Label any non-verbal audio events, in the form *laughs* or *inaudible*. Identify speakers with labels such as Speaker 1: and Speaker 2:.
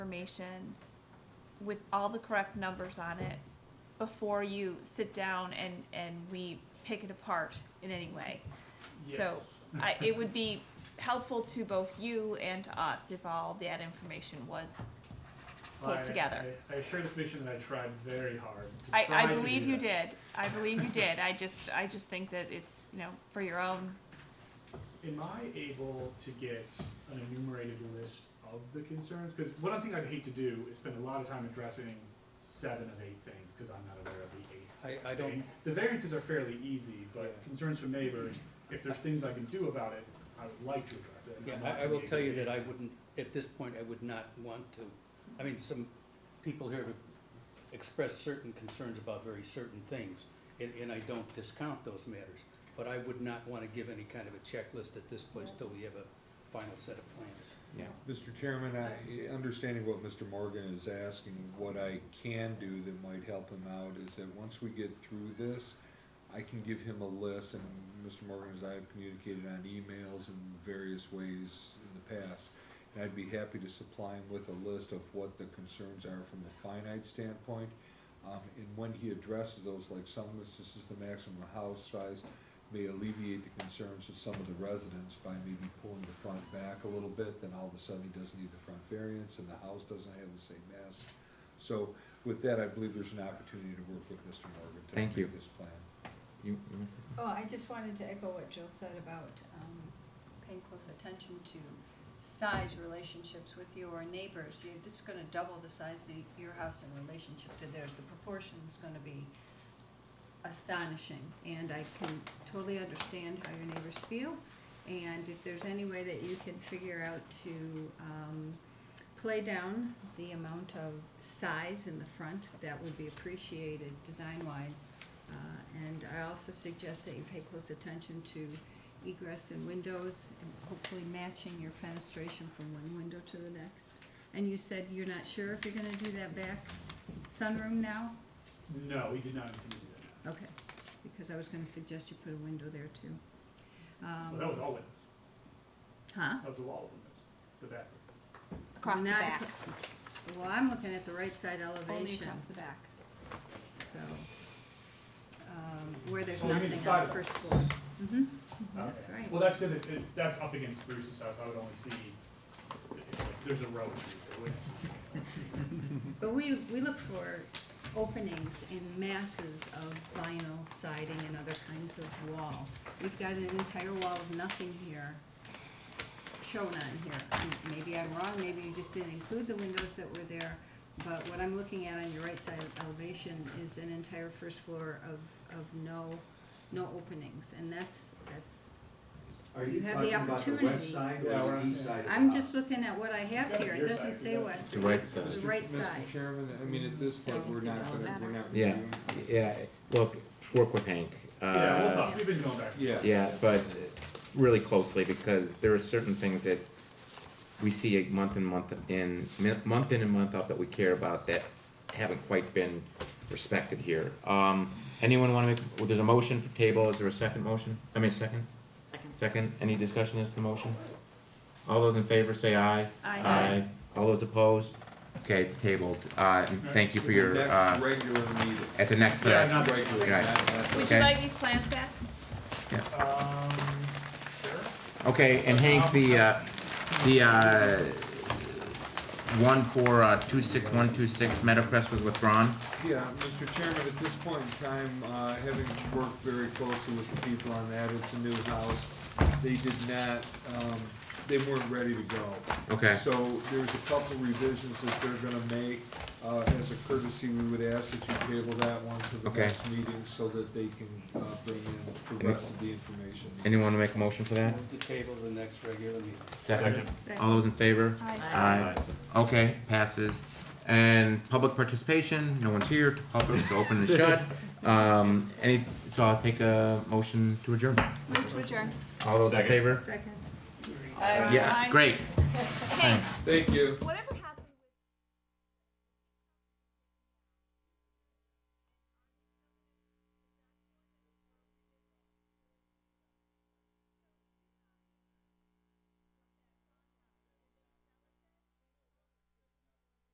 Speaker 1: information with all the correct numbers on it before you sit down and, and we pick it apart in any way. So I, it would be helpful to both you and to us if all that information was, pulled
Speaker 2: I-
Speaker 1: together.
Speaker 2: I I assure the commission that I tried very hard. to
Speaker 1: I,
Speaker 2: try
Speaker 1: I
Speaker 2: to
Speaker 1: believe
Speaker 2: do
Speaker 1: you
Speaker 2: that.
Speaker 1: did, I believe you did, I just, I just think that it's, you know, for your own,
Speaker 2: Am I able to get an enumerated list of the concerns? Because one thing I'd hate to do is spend a lot of time addressing seven of eight things, because I'm not aware of the eighth.
Speaker 3: I, I don't,
Speaker 2: thing. The variances are fairly easy, but
Speaker 3: Yeah.
Speaker 2: concerns from neighbors, if there's things I can do about it, I would like to address it. and
Speaker 3: yeah,
Speaker 2: I'd like
Speaker 3: I, I
Speaker 2: to
Speaker 3: will
Speaker 2: be
Speaker 3: tell you
Speaker 2: able
Speaker 3: that
Speaker 2: to-
Speaker 3: I wouldn't, at this point, I would not want to. I mean, some people here have expressed certain concerns about very certain things, and, and I don't discount those matters. But I would not want to give any kind of a checklist at this point till we have a final set of plans.
Speaker 4: Yeah.
Speaker 5: Mr. Chairman, I, understanding what Mr. Morgan is asking, what I can do that might help him out is that once we get through this, I can give him a list, and Mr. Morgan, as I have communicated on emails in various ways in the past, and I'd be happy to supply him with a list of what the concerns are from a finite standpoint. Um, and when he addresses those, like some instances, the maximum house size may alleviate the concerns of some of the residents by maybe pulling the front back a little bit, then all of a sudden he doesn't need the front variance, and the house doesn't have the same mass. So with that, I believe there's an opportunity to work with Mr. Morgan to
Speaker 4: Thank you.
Speaker 5: make this plan.
Speaker 4: You, you want to say something?
Speaker 6: Oh, I just wanted to echo what Jill said about um, paying close attention to size relationships with your neighbors. You- This is gonna double the size of your house in relationship to theirs. The proportion's gonna be astonishing. And I can totally understand how your neighbors feel. And if there's any way that you can figure out to um, play down the amount of size in the front, that would be appreciated design-wise. Uh, And I also suggest that you pay close attention to egress and windows, and hopefully matching your fenestration from one window to the next. And you said you're not sure if you're gonna do that back sunroom now?
Speaker 2: No, we did not intend to do that.
Speaker 6: Okay, because I was gonna suggest you put a window there too.
Speaker 2: Well, that
Speaker 6: Um,
Speaker 2: was all, it-
Speaker 6: Huh?
Speaker 2: that was a wall, the back.
Speaker 1: across the
Speaker 6: Not
Speaker 1: back,
Speaker 6: acro- Well, I'm looking at the right side
Speaker 1: only
Speaker 6: elevation,
Speaker 1: across the back.
Speaker 6: so, um, where there's
Speaker 2: Oh, you mean the
Speaker 6: nothing on
Speaker 2: sidewalk.
Speaker 6: the first floor. hmm that's
Speaker 2: Okay.
Speaker 6: right.
Speaker 2: Well, that's because it, it, that's up against Bruce's house, I would only see, it's like, there's a road, so it would.
Speaker 6: But we, we look for openings in masses of vinyl siding and other kinds of wall. We've got an entire wall of nothing here shown on here. M- Maybe I'm wrong, maybe you just didn't include the windows that were there, but what I'm looking at on your right side of elevation is an entire first floor of, of no, no openings, and that's, that's,
Speaker 7: Are
Speaker 6: You
Speaker 7: you
Speaker 6: have the
Speaker 7: talking about the
Speaker 6: opportunity.
Speaker 7: west side
Speaker 2: Yeah,
Speaker 7: or
Speaker 2: we're
Speaker 7: the east side? of the
Speaker 6: I'm
Speaker 7: house?
Speaker 6: just looking at what I
Speaker 2: It's
Speaker 6: have
Speaker 2: gotta
Speaker 6: here,
Speaker 2: be
Speaker 6: it
Speaker 2: your side,
Speaker 6: doesn't
Speaker 2: 'cause
Speaker 6: say
Speaker 2: that's-
Speaker 6: west.
Speaker 4: The right
Speaker 6: it's- It's
Speaker 4: side.
Speaker 6: the right
Speaker 5: Mr.
Speaker 6: side.
Speaker 5: Chairman, I mean, at this
Speaker 6: So
Speaker 5: point, we're
Speaker 6: it's
Speaker 5: not
Speaker 6: all
Speaker 5: gonna,
Speaker 1: better.
Speaker 5: we're not.
Speaker 4: Yeah.
Speaker 5: doing-
Speaker 4: Yeah, look, work with Hank.
Speaker 2: Yeah, we'll
Speaker 4: uh,
Speaker 2: talk, we've been going back.
Speaker 5: Yeah.
Speaker 4: Yeah, but really closely because there are certain things that we see month in, month in, month in and month out that we care about that haven't quite been respected here. Um, anyone wanna make, well, there's a motion for table, is there a second motion? I mean, second? Second. Second, any discussion as to the motion? All those in favor say aye.
Speaker 1: Aye.
Speaker 4: All those opposed? Okay, it's tabled, uh, and thank you for your,
Speaker 5: Next
Speaker 4: uh,
Speaker 5: regular meeting.
Speaker 4: at the next,
Speaker 2: Yeah,
Speaker 4: uh,
Speaker 2: not
Speaker 5: Regular,
Speaker 4: Okay.
Speaker 5: not- not-
Speaker 1: Would
Speaker 4: Okay.
Speaker 1: you like these plans back?
Speaker 2: Um, sure.
Speaker 4: Okay, and Hank, the, uh, the, uh, one for, uh, two six one two six Meadowcrest was withdrawn?
Speaker 5: Yeah, Mr. Chairman, at this point in time, uh, having worked very closely with the people on that, it's a new house. They did not, um, they weren't ready to go.
Speaker 4: Okay.
Speaker 5: So there's a couple revisions that they're gonna make. Uh, as a courtesy, we would ask that you table that one to the
Speaker 4: Okay.
Speaker 5: next meeting so that they can, uh, bring in the
Speaker 4: Any-
Speaker 5: rest of the information.
Speaker 4: Anyone wanna make a motion for that?
Speaker 3: Move the table to the next regular meeting.
Speaker 4: Second.
Speaker 6: Second.
Speaker 4: All those in favor?
Speaker 1: Aye.
Speaker 4: Aye. Okay, passes. And public participation, no one's here, public is *laughs* open and shut. Um, any, so I'll take a motion to adjourn.
Speaker 1: Move to adjourn.
Speaker 4: All those in favor?
Speaker 6: Second.
Speaker 4: Yeah,
Speaker 1: Aye.
Speaker 4: great,
Speaker 1: Hey,
Speaker 4: thanks.
Speaker 5: Thank you.
Speaker 1: whatever